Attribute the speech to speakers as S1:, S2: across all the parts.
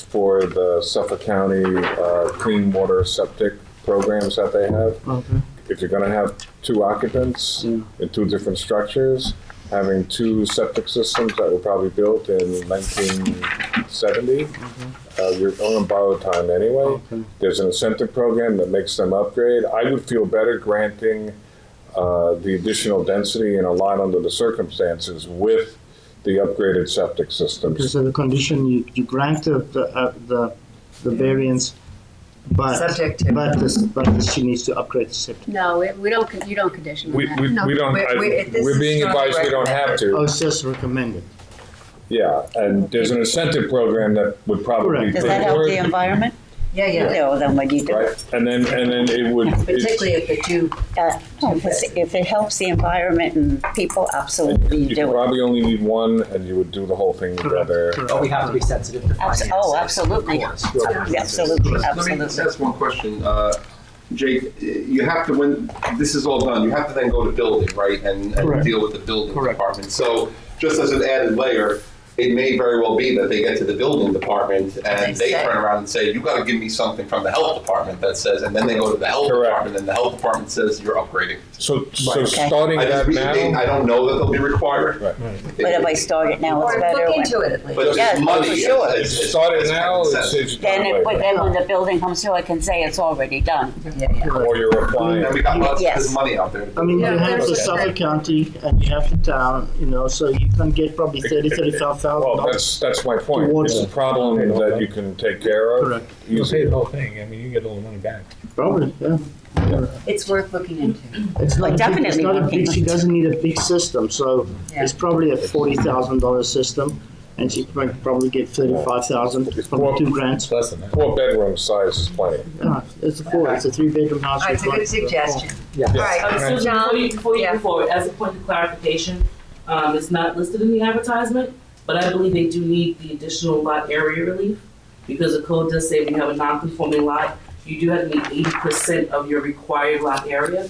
S1: for the Suffolk County uh, Clean Water Septic programs that they have.
S2: Okay.
S1: If you're gonna have two occupants
S2: Yeah.
S1: in two different structures, having two septic systems that were probably built in nineteen seventy, uh, you're on borrowed time anyway.
S2: Mm-hmm. Okay.
S1: There's an incentive program that makes them upgrade. I would feel better granting uh, the additional density in a lot under the circumstances with the upgraded septic
S2: Okay,
S1: systems.
S2: so the condition you, you grant the the uh, the, the variance, but
S3: Subject to-
S2: but this but this, she needs to upgrade the septic.
S4: No, we- we don't, con- you don't condition on
S1: We,
S4: that.
S1: we,
S3: No,
S1: we don't,
S3: we-
S1: I-
S3: we- this
S1: we're
S3: is
S1: being
S3: strongly
S1: advised we don't have to.
S2: Oh, it's just recommended.
S1: Yeah, and there's an incentive program that would probably.
S2: Correct.
S5: Does that help the
S1: work,
S5: environment?
S3: Yeah, yeah.
S5: No, then what do you do?
S1: Right, and then, and then it would. it's-
S3: Particularly if the two,
S5: Uh, no, if it's- If it helps the environment and people, absolutely you
S1: You could
S5: do it.
S1: probably only need one, and you would do the whole thing
S2: Correct.
S1: together.
S2: correct.
S6: But we have to be sensitive to
S5: Abs-
S6: finances.
S5: Oh, absolutely.
S6: Of course.
S5: Absolutely,
S7: Let me just
S5: absolutely.
S7: ask one question. Uh, Jake, you have to, when this is all done, you have to then go to building, right? And,
S2: Correct.
S7: and deal with the building
S2: Correct.
S7: department. So just as an added layer, it may very well be that they get to the building department and
S3: They
S7: they
S3: say-
S7: turn around and say, you gotta give me something from the health department that says, and then they go to the health
S1: Correct.
S7: department and the health department says, you're upgrading.
S1: So, so
S5: Okay.
S1: starting
S7: I
S1: that
S7: just, really-
S1: now,
S7: I don't know that they'll be required.
S1: Right.
S5: But if I start it now, it's
S3: or
S5: better.
S3: look
S5: when-
S3: into it at least.
S7: But it's
S5: Yeah, for
S7: money.
S5: sure.
S7: It's- it's-
S1: starting
S7: it's
S1: now,
S7: common
S1: it's,
S7: sense.
S1: it's not
S5: Then it, but
S1: right.
S5: then when the building comes through, I can say it's already done.
S3: Yeah, yeah.
S1: Or you're applying.
S7: And we got lots,
S5: Yes.
S7: there's money out there.
S2: I mean,
S3: Yeah,
S2: you have
S3: there's
S2: the
S3: a-
S2: Suffolk County and you have the town, you know, so you can get probably thirty, thirty-five thousand
S1: Well,
S2: dollars.
S1: that's, that's my point.
S2: Towards-
S1: It's a problem that you can take care of.
S2: Correct.
S8: You'll pay
S1: easily.
S8: the whole thing, I mean, you get all the money back.
S2: Probably, yeah.
S3: It's worth looking into.
S2: It's not, a big- it's
S5: Definitely
S2: not a
S5: looking
S2: big, she
S5: into it.
S2: doesn't need a big system, so
S3: Yeah.
S2: it's probably a forty thousand dollar system. And she might probably get thirty-five thousand
S1: It's
S2: from
S1: prob-
S2: two grants.
S8: It's less than that.
S1: Four bedroom size is plenty.
S2: Yeah, it's a four, it's a three-bedroom
S3: All
S2: house.
S3: right, it's a
S2: with
S3: good
S2: one-
S3: suggestion.
S6: Yeah.
S3: All right, so
S9: Um, Susan, before you,
S3: John,
S9: before you
S3: yeah.
S9: move forward, as a point of clarification, um, it's not listed in the advertisement, but I believe they do need the additional lot area relief, because the code does say when you have a non-conforming lot, you do have to meet eighty percent of your required lot area.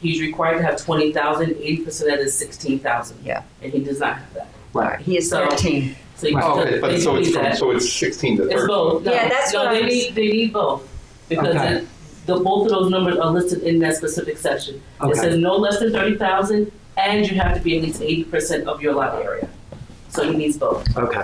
S9: He's required to have twenty thousand, eighty percent of that is sixteen thousand.
S3: Yeah.
S9: And he does not have that,
S3: All right, He is
S9: So-
S3: thirteen.
S9: so you
S7: Oh,
S9: still,
S7: okay,
S9: they
S7: but so
S9: do
S7: it's
S9: need
S7: from,
S9: that.
S7: so it's sixteen to
S9: It's
S7: thirteen.
S9: both, no,
S3: Yeah, that's what
S9: no,
S3: I
S9: they
S3: was-
S9: need, they need both, because
S6: Okay.
S9: it- the, both of those numbers are listed in that specific section. It
S6: Okay.
S9: says no less than thirty thousand, and you have to be at least eighty percent of your lot area. So he needs both.
S6: Okay.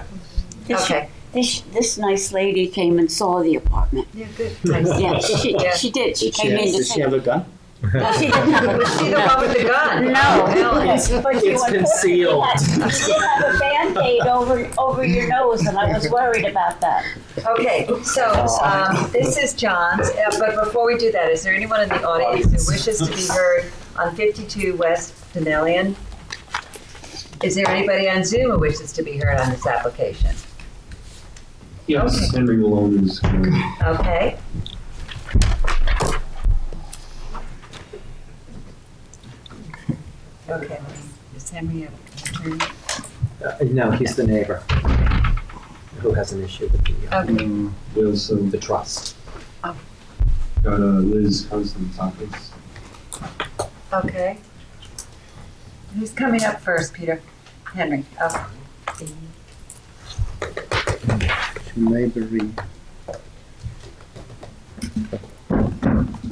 S5: This,
S3: Okay.
S5: this, this nice lady came and saw the apartment.
S3: Yeah, good. Nice.
S5: Yeah, she,
S3: Yeah.
S5: she did, she
S2: Did she,
S5: came in to
S2: did she
S5: see.
S2: have a gun?
S5: No, she didn't have a-
S3: Was she the one with the gun? Oh,
S5: No.
S3: Really?
S5: But you
S6: It's
S5: unfortunately
S6: concealed.
S5: had- You did have a Band-Aid over, over your nose, and I was worried about that.
S3: Okay, so um, this is John's, uh, but before we do that, is there anyone in the audience who wishes to be heard on 52 West Denalian? Is there anybody on Zoom who wishes to be heard on this application?
S10: Yes, Henry Malone is. uh,
S3: Okay, okay. Is Henry a-
S6: Uh, No, he's the neighbor who has an issue with the, uh,
S3: Okay,
S10: We also
S6: the trust.
S5: Oh.
S10: got uh, Liz Constant's office.
S3: okay. Who's coming up first, Peter? Henry, oh.
S2: Neighboring.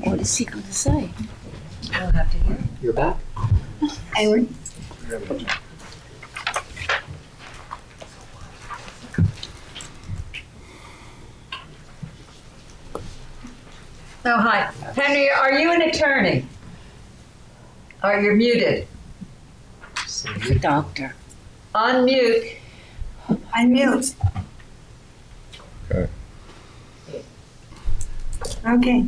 S5: What is he gonna say?
S3: We'll have to hear.
S6: You're back?
S3: Oh, hi. Henry, are you an attorney? Are you muted?
S5: The doctor.
S3: Unmute.
S11: Unmute.
S1: Okay.
S11: Okay.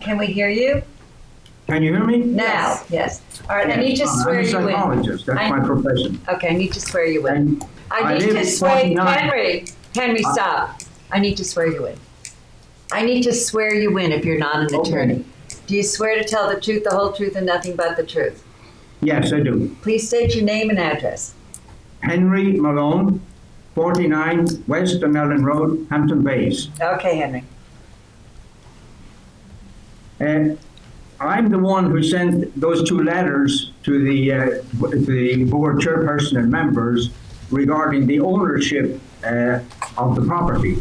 S3: Can we hear you?
S10: Can you hear me?
S3: Now, yes. All right, I need to swear you
S10: I'm oh, a
S3: in.
S10: psychologist, that's
S3: I-
S10: my profession.
S3: Okay, I need to swear you in.
S10: And
S3: I
S10: I
S3: need to
S10: live
S3: swear,
S10: 29.
S3: Henry, Henry,
S10: I-
S3: stop. I need to swear you in. I need to swear you in if you're not an
S10: Okay.
S3: attorney. Do you swear to tell the truth, the whole truth, and nothing but the truth?
S10: Yes, I do.
S3: Please state your name and address.
S10: Henry Malone, 49 West Dunellen Road, Hampton Bays.
S3: Okay, Henry.
S10: And Uh, I'm the one who sent those two letters to the, uh, to the board chairperson and members regarding the ownership uh, of the property.